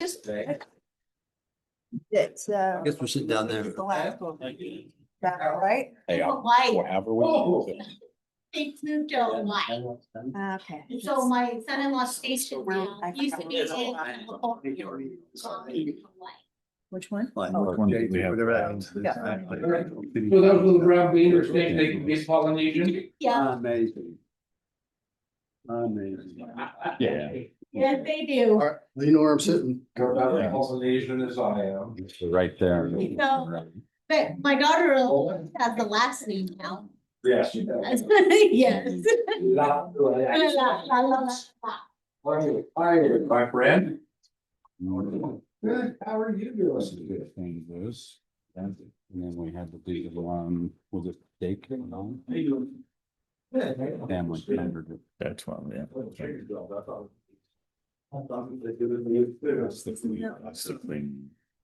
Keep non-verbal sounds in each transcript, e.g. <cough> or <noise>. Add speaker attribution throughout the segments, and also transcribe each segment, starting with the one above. Speaker 1: Just.
Speaker 2: Right.
Speaker 1: That's, uh.
Speaker 3: Guess we're sitting down there.
Speaker 1: The last one. That, all right?
Speaker 4: Hey,
Speaker 5: The
Speaker 4: I'll-
Speaker 5: light,
Speaker 4: however we.
Speaker 2: Oh.
Speaker 5: they moved out light.
Speaker 1: Ah, Okay.
Speaker 5: And so my son-in-law station now,
Speaker 1: I
Speaker 5: used to be in.
Speaker 1: forgot.
Speaker 5: California, the light.
Speaker 1: Which one?
Speaker 4: Which one did we have?
Speaker 3: Whatever that is.
Speaker 1: Yeah.
Speaker 3: Exactly.
Speaker 2: So those little brown beans are snakes, they can be Polynesian.
Speaker 5: Yeah,
Speaker 6: Amazing. Amazing.
Speaker 4: Yeah.
Speaker 5: yes, they do.
Speaker 6: All right, you know where I'm sitting.
Speaker 2: They're about as Polynesian as I am.
Speaker 4: Right there.
Speaker 5: No. But my daughter has the last name now.
Speaker 2: Yes, you know.
Speaker 5: Yes.
Speaker 2: La-
Speaker 5: La, la,
Speaker 2: la-
Speaker 5: la, la, la.
Speaker 2: How are you? How are you, My friend. Good, how are you doing?
Speaker 4: Thing was, and then we had to do the one with the daycare, no?
Speaker 2: How you doing? Good.
Speaker 4: Family.
Speaker 7: That's one, yeah. That's the thing.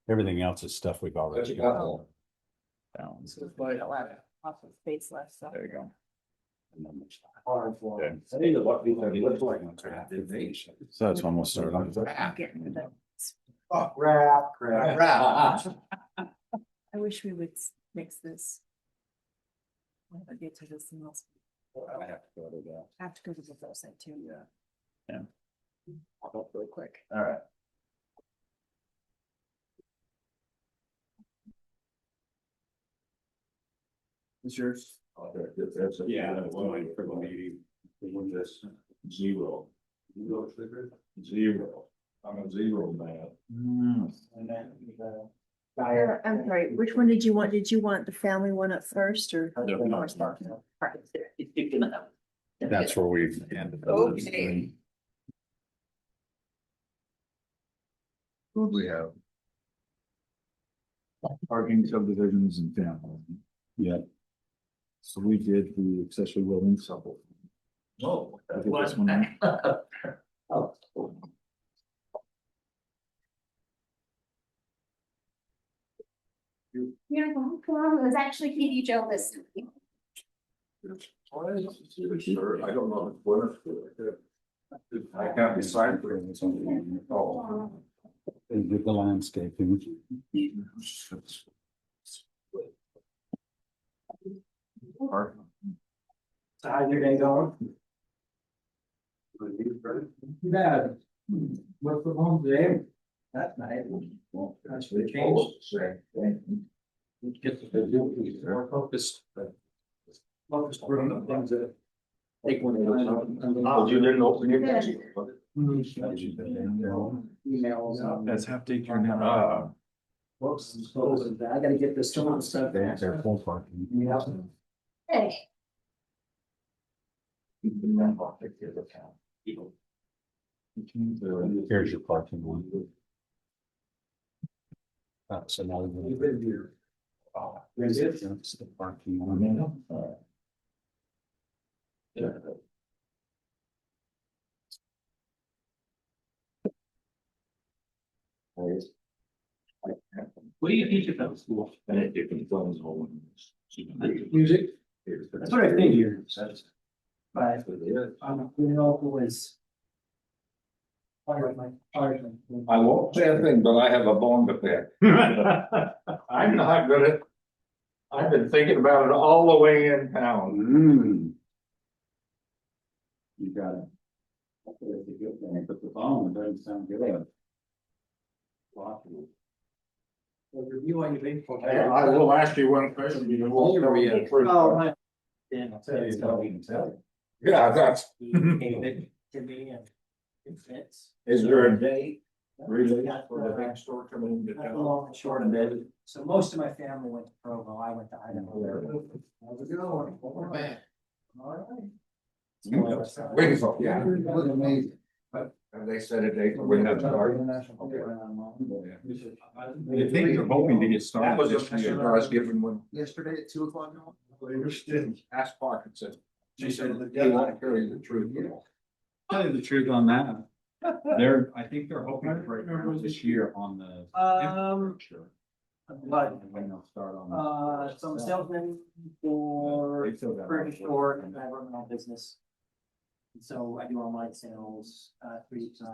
Speaker 4: Everything else is stuff we've already got.
Speaker 7: Down.
Speaker 1: Awesome space left, so.
Speaker 7: There you go. So that's one we'll start on.
Speaker 2: Oh, crap, crap, crap. <laughs>
Speaker 1: I wish we would s- mix this. When I get to this, and I'll have to go to the website too.
Speaker 7: Yeah. Yeah.
Speaker 1: I'll go Real quick.
Speaker 7: All right.
Speaker 6: It's yours.
Speaker 2: Oh, Yeah. that one for the meeting, the one that's Zero. Zero. I'm a zero man. Hmm. uh,
Speaker 1: Or, I'm sorry, which one did you want? Did you want the family one up first or?
Speaker 2: Yeah.
Speaker 4: That's where we've ended.
Speaker 1: Okay.
Speaker 7: Who'd we have? Parking subdivisions and family. Yeah. So we did the accessory building sub.
Speaker 2: Oh.
Speaker 7: I did this one.
Speaker 5: You're like, oh, come on, it was actually Katie Joe this time.
Speaker 2: Sure, I don't know. what it's for. I can't decide for it. Oh.
Speaker 4: They did the landscaping.
Speaker 2: So how's your day going? Bad. Work from home today. That's nice. That's really changed. Get the, more focused. Focused on the things that. Take one.
Speaker 6: Oh, you didn't open your.
Speaker 2: Emails.
Speaker 7: That's half day turn now.
Speaker 2: Whoops, Uh, I gotta get this to my stuff.
Speaker 4: They have their full parking.
Speaker 2: Yeah.
Speaker 5: Hey,
Speaker 4: Here's your parking one. Uh, so now. we're-
Speaker 2: There's it.
Speaker 4: That's the parking one.
Speaker 2: What do you teach about school? Music. That's what I figured. But I'm, you know, was. Part of my, part of my.
Speaker 8: I won't say a thing, but I have a bone
Speaker 2: <laughs>
Speaker 8: to pick. I'm not gonna. I've been thinking about it all the way in town.
Speaker 4: Mm. You got it. That's a good thing, but the phone doesn't sound good.
Speaker 2: Review on your big.
Speaker 8: I I will ask you one question, but you won't tell me the truth.
Speaker 2: Oh, my. Yeah, I'll tell you.
Speaker 8: Yeah, that's,
Speaker 2: To me and. It fits.
Speaker 8: is there a
Speaker 2: day?
Speaker 8: really
Speaker 2: For the
Speaker 8: big store coming into
Speaker 2: That's the
Speaker 8: town?
Speaker 2: long and short of it. So most of my family went to Provo, I went to Idaho. How's it going?
Speaker 8: Wait, so, yeah.
Speaker 2: It was amazing.
Speaker 8: Have they set a date for when that's starting?
Speaker 2: I
Speaker 7: I think they're hoping to get
Speaker 8: That was
Speaker 7: started
Speaker 8: just,
Speaker 7: this year.
Speaker 8: I was given one,
Speaker 6: Yesterday at two o'clock.
Speaker 8: asked Parkinson.
Speaker 6: She said the
Speaker 8: They
Speaker 6: deadline.
Speaker 8: won't carry the truth.
Speaker 7: Tell you the truth on that. They're, I think they're hoping for it this year on the.
Speaker 2: Um,
Speaker 7: Sure.
Speaker 2: but,
Speaker 7: When they'll start on. the-
Speaker 2: uh, some salesman for
Speaker 7: They still got-
Speaker 2: furniture store and I run my own business. And So I do online sales, uh, three times.